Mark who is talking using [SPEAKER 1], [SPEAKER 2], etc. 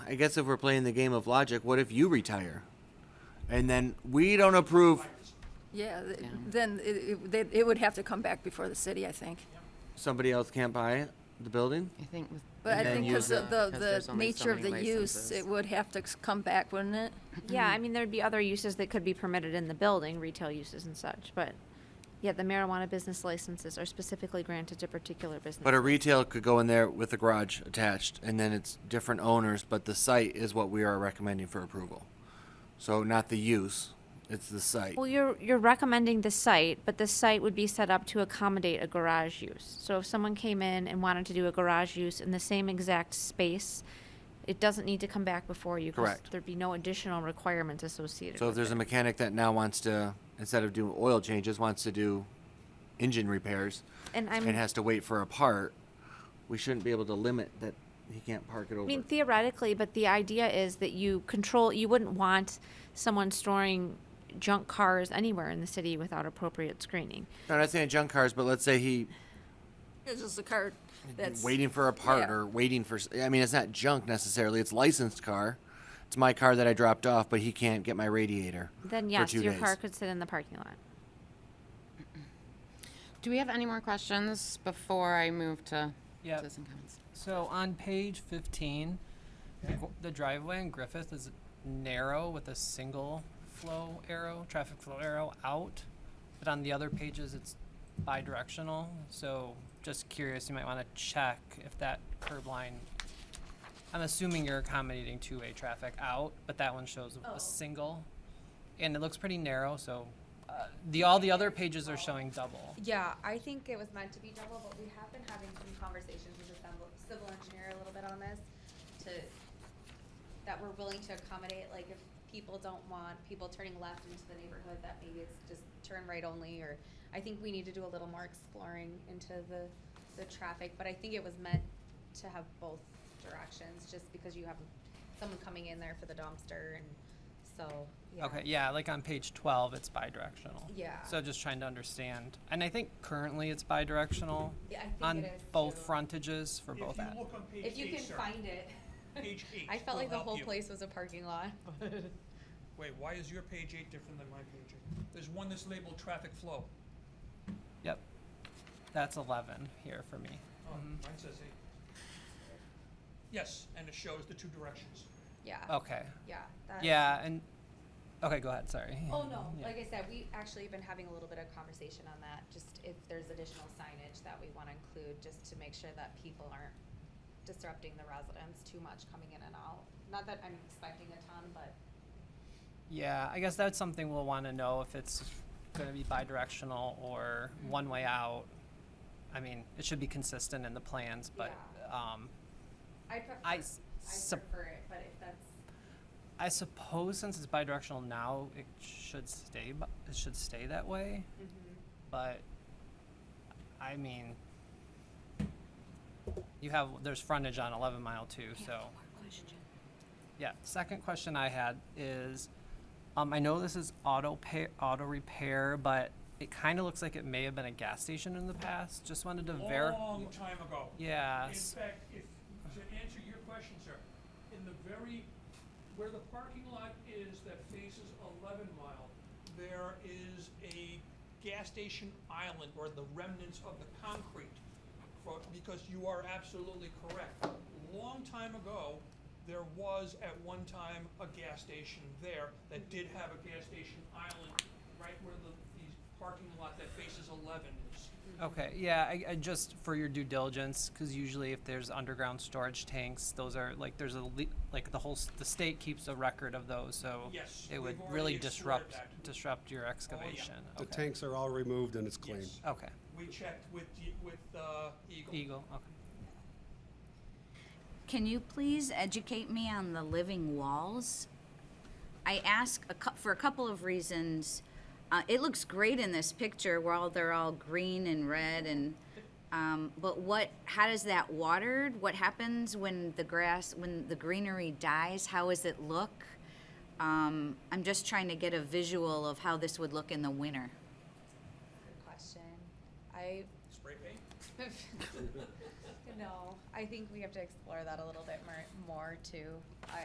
[SPEAKER 1] I guess if we're playing the game of logic, what if you retire? And then we don't approve,
[SPEAKER 2] Yeah, th- then it, it, they- it would have to come back before the city, I think.
[SPEAKER 1] somebody else can't buy it, the building?
[SPEAKER 3] I think with.
[SPEAKER 2] But I
[SPEAKER 1] then
[SPEAKER 2] think because
[SPEAKER 1] use
[SPEAKER 2] of
[SPEAKER 1] it.
[SPEAKER 2] the,
[SPEAKER 3] 'Cause there's
[SPEAKER 2] the
[SPEAKER 3] only so
[SPEAKER 2] nature of
[SPEAKER 3] many
[SPEAKER 2] the use,
[SPEAKER 3] licenses.
[SPEAKER 2] it would have to s- come back, wouldn't it?
[SPEAKER 4] Yeah, I mean, there'd be other uses that could be permitted in the building, retail uses and such, but yeah, the marijuana business licenses are specifically granted to particular businesses.
[SPEAKER 1] But a retail could go in there with a garage attached, and then it's different owners, but the site is what we are recommending for approval. So not the use, it's the site.
[SPEAKER 4] Well, you're, you're recommending the site, but the site would be set up to accommodate a garage use. So if someone came in and wanted to do a garage use in the same exact space, it doesn't need to come back before you. 'cause
[SPEAKER 1] Correct.
[SPEAKER 4] There'd be no additional requirements associated
[SPEAKER 1] So if
[SPEAKER 4] with
[SPEAKER 1] there's a
[SPEAKER 4] it.
[SPEAKER 1] mechanic that now wants to, instead of doing oil changes, wants to do engine repairs,
[SPEAKER 4] And I'm.
[SPEAKER 1] and has to wait for a part, we shouldn't be able to limit that he can't park it
[SPEAKER 4] I
[SPEAKER 1] over.
[SPEAKER 4] mean, theoretically, but the idea is that you control, you wouldn't want someone storing junk cars anywhere in the city without appropriate screening.
[SPEAKER 1] No, I'm not saying junk cars, but let's say he
[SPEAKER 2] It's just a car that's.
[SPEAKER 1] waiting for a part
[SPEAKER 2] yeah.
[SPEAKER 1] or waiting for. s- I mean, it's not junk necessarily. It's licensed car. It's my car that I dropped off, but he can't get my radiator.
[SPEAKER 4] Then
[SPEAKER 1] for
[SPEAKER 4] yes,
[SPEAKER 1] two
[SPEAKER 4] your
[SPEAKER 1] days.
[SPEAKER 4] car could sit in the parking lot.
[SPEAKER 3] Do we have any more questions before I move to
[SPEAKER 5] Yep.
[SPEAKER 3] citizen comments?
[SPEAKER 5] So on page fifteen, the gr- the driveway in Griffith is narrow with a single flow arrow, traffic flow arrow out. But on the other pages, it's bi-directional, so just curious, you might wanna check if that curb line, I'm assuming you're accommodating two-way traffic out, but that one shows a single, and it looks pretty narrow, so, uh, the, all the other pages are showing double.
[SPEAKER 6] Yeah, I think it was meant to be double, but we have been having some conversations with the civil, civil engineer a little bit on this to, that we're willing to accommodate, like if people don't want people turning left into the neighborhood, that maybe it's just turn right only, or I think we need to do a little more exploring into the, the traffic, but I think it was meant to have both directions, just because you have someone coming in there for the dumpster and so, yeah.
[SPEAKER 5] Okay, yeah, like on page twelve, it's bi-directional.
[SPEAKER 6] Yeah.
[SPEAKER 5] So just trying to understand, and I think currently it's bi-directional
[SPEAKER 6] Yeah, I think
[SPEAKER 5] on
[SPEAKER 6] it is.
[SPEAKER 5] both
[SPEAKER 6] too.
[SPEAKER 5] frontages for both.
[SPEAKER 7] If
[SPEAKER 5] ad-
[SPEAKER 7] you look on page
[SPEAKER 6] If you
[SPEAKER 7] eight,
[SPEAKER 6] can
[SPEAKER 7] sir,
[SPEAKER 6] find it.
[SPEAKER 7] Page eight
[SPEAKER 6] I felt
[SPEAKER 7] will
[SPEAKER 6] like the
[SPEAKER 7] help
[SPEAKER 6] whole
[SPEAKER 7] you. Oh.
[SPEAKER 6] place was a parking lot.
[SPEAKER 7] Wait, why is your page eight different than my page eight? There's one that's labeled traffic flow. Oh,
[SPEAKER 5] Yep, that's eleven here for me.
[SPEAKER 7] Oh, mine says eight. Yes, and it shows the two directions.
[SPEAKER 6] Yeah,
[SPEAKER 7] Uh,
[SPEAKER 5] Okay,
[SPEAKER 6] yeah. that-
[SPEAKER 5] yeah, and, okay, go ahead, sorry.
[SPEAKER 6] Oh, no,
[SPEAKER 5] Yeah.
[SPEAKER 6] like I said, we actually have been having a little bit of conversation on that, just if there's additional signage that we want to include, just to make sure that people aren't disrupting the residents too much coming in and out. Not that I'm expecting a ton, but
[SPEAKER 5] Yeah, I guess that's something we'll wanna know if it's gonna be bi-directional or one way out. I mean, it should be consistent in the plans, but, um,
[SPEAKER 6] I prefer,
[SPEAKER 5] I
[SPEAKER 6] I
[SPEAKER 5] s- sup-
[SPEAKER 6] prefer it, but if that's,
[SPEAKER 5] I suppose since it's bidirectional now, it should stay. bu- It should stay that way. But I mean, you have there's frontage on 11 Mile too, so. Yeah. Second question I had is, um, I know this is auto pay, auto repair, but it kind of looks like it may have been a gas station in the past. Just wanted to verify.
[SPEAKER 7] Long time ago.
[SPEAKER 5] Yeah.
[SPEAKER 7] In
[SPEAKER 5] s-
[SPEAKER 7] fact, if, to answer your question, sir, in the very, where the parking lot is that faces Eleven Mile, there is a gas station island or the remnants of the concrete. For, because you are absolutely correct. Long time ago, there was at one time a gas station there that did have a gas station island right where the, the parking lot that faces Eleven is.
[SPEAKER 5] Okay, yeah, I, I just for your due diligence, because usually if there's underground storage tanks, those are like there's a le- like the whole s- the state keeps a record of those, so
[SPEAKER 7] Yes,
[SPEAKER 5] it
[SPEAKER 7] we've
[SPEAKER 5] would
[SPEAKER 7] already
[SPEAKER 5] really
[SPEAKER 7] explored
[SPEAKER 5] disrupt
[SPEAKER 7] that. Oh,
[SPEAKER 5] disrupt your excavation.
[SPEAKER 8] The
[SPEAKER 5] okay.
[SPEAKER 8] tanks are all removed and it's clean.
[SPEAKER 7] Yes.
[SPEAKER 5] Okay,
[SPEAKER 7] We checked with, the- with uh, Eagle.
[SPEAKER 5] Eagle. Okay.
[SPEAKER 9] Can you please educate me on the living walls? I ask a cou- for a couple of reasons. Uh, it looks great in this picture where all, they're all green and red and, um, but what, how does that watered? What happens when the grass, when the greenery dies? How does it look? Um, I'm just trying to get a visual of how this would look in the winter.
[SPEAKER 6] good question. I,
[SPEAKER 7] Spray paint?
[SPEAKER 6] no, I think we have to explore that a little bit more, more too. I,